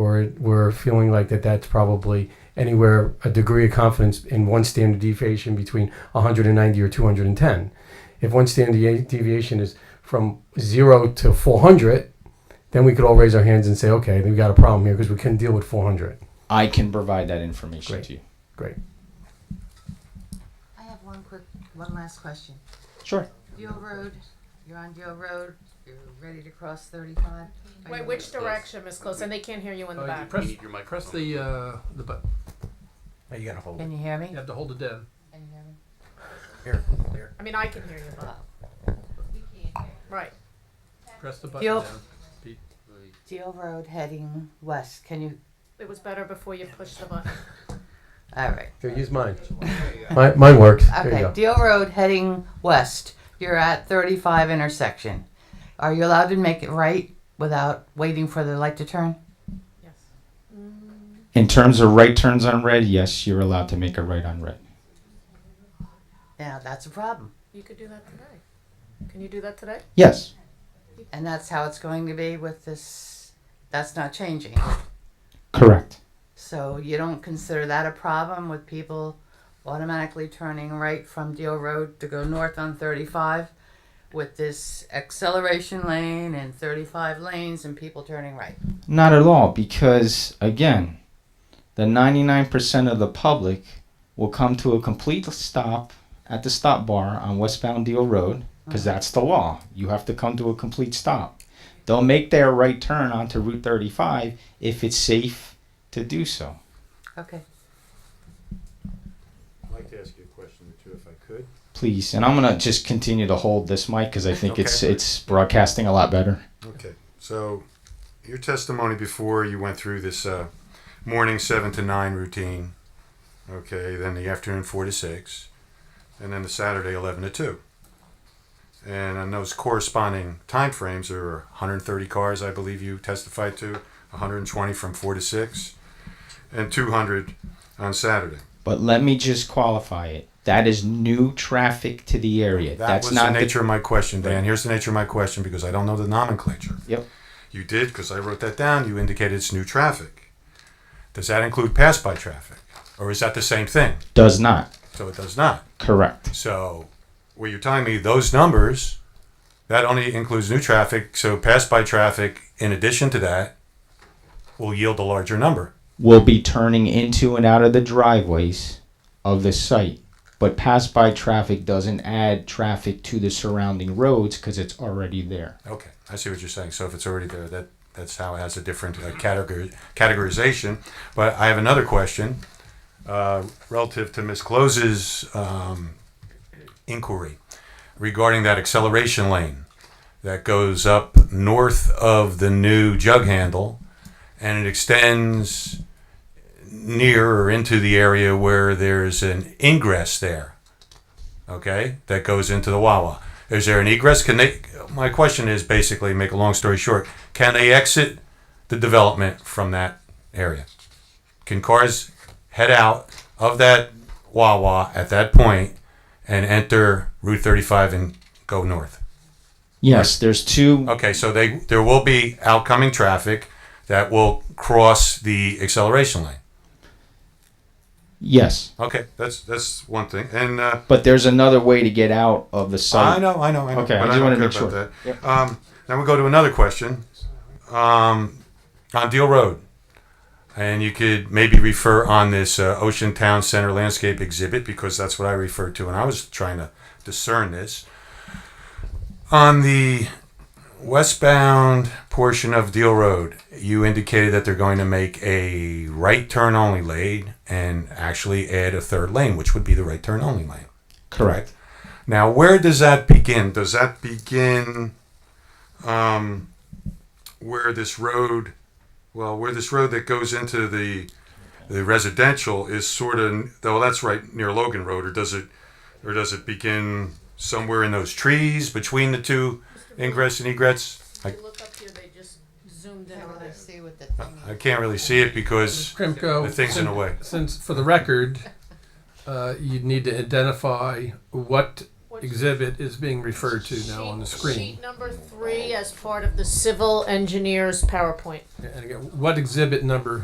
we're we're feeling like that that's probably anywhere a degree of confidence in one standard deviation between 190 or 210. If one standard de- deviation is from zero to 400, then we could all raise our hands and say, okay, we got a problem here because we couldn't deal with 400. I can provide that information Great. to you. Great. I have one quick, one last question. Sure. Deal Road, you're on Deal Road, you're ready to cross thirty-five? Are Wait, you- which direction, Miss Close? And they can't hear you in the Uh, you back. press, you might press the uh, the button. You gotta hold Can you hear me? You have to hold it down. Can you hear me? I mean, I can hear you. Right. Press the button Yep. down. Pete. Deal Road heading west, can you, It was better before you pushed the button. all right. Here, use mine. mine. Mine works. There you Okay, go. Deal Road heading west, you're at thirty-five intersection. Are you allowed to make it right without waiting for the light to turn? Yes. In terms of right turns on red, yes, you're allowed to make a right on red. Now, that's a problem, You could do that today. Can you do that today? Yes. and that's how it's going to be with this, that's not changing. Correct. So you don't consider that a problem with people automatically turning right from Deal Road to go north on 35 with this acceleration lane and 35 lanes and people turning right? Not at all, because again, the 99% of the public will come to a complete stop at the stop bar on westbound Deal Road, because that's the law. You have to come to a complete stop. They'll make their right turn onto Route 35 if it's safe to do so. Okay. I'd like to ask you a question or two if I could. Please, and I'm gonna just continue to hold this mic because I think it's Okay. it's broadcasting a lot better. Okay, so your testimony before you went through this uh, morning seven to nine routine, okay, then the afternoon four to six, and then the Saturday eleven to two. And on those corresponding timeframes, there were 130 cars, I believe you testified to, 120 from four to six, and 200 on Saturday. But let me just qualify it. That is new traffic to the area. That That's was not the nature of my question, Dan. Right. Here's the nature of my question because I don't know the nomenclature. Yep. You did because I wrote that down. You indicated it's new traffic. Does that include pass by traffic? Or is that the same thing? Does not. So it does not. Correct. So were you telling me those numbers, that only includes new traffic, so pass by traffic in addition to that will yield a larger number. Will be turning into and out of the driveways of the site. But pass by traffic doesn't add traffic to the surrounding roads because it's already there. Okay, I see what you're saying. So if it's already there, that that's how it has a different uh, categor- categorization. But I have another question uh, relative to Ms. Close's um, inquiry regarding that acceleration lane that goes up north of the new jug handle and it extends near or into the area where there's an ingress there okay, that goes into the Wawa. Is there an egress? Can they? My question is basically, make a long story short, can they exit the development from that area? Can cars head out of that Wawa at that point and enter Route 35 and go north? Yes, there's two. Okay, so they there will be outcoming traffic that will cross the acceleration lane. Yes, Okay, that's that's one thing, and. Uh, but there's another way to get out of the site. I know, I know, I know. Okay, I but just don't wanna care make about sure. that. Um, now we go to another question. Um, on Deal Road, and you could maybe refer on this uh, Ocean Town Center landscape exhibit because that's what I referred to when I was trying to discern this. On the westbound portion of Deal Road, you indicated that they're going to make a right turn only lane and actually add a third lane, which would be the right turn only lane. Correct. Now, where does that begin? Does that begin um, where this road, well, where this road that goes into the the residential is sort of, well, that's right near Logan Road, or does it, or does it begin somewhere in those trees between the two ingress and egress? I, Look up here, they just zoomed in Can't on really this. see what the thing I can't really see it because Krimko, The thing's in a way. Since for the record, uh, you'd need to identify what exhibit is being referred to now on the Sheet- screen. Sheet number three as part of the civil engineer's PowerPoint. And again, what exhibit number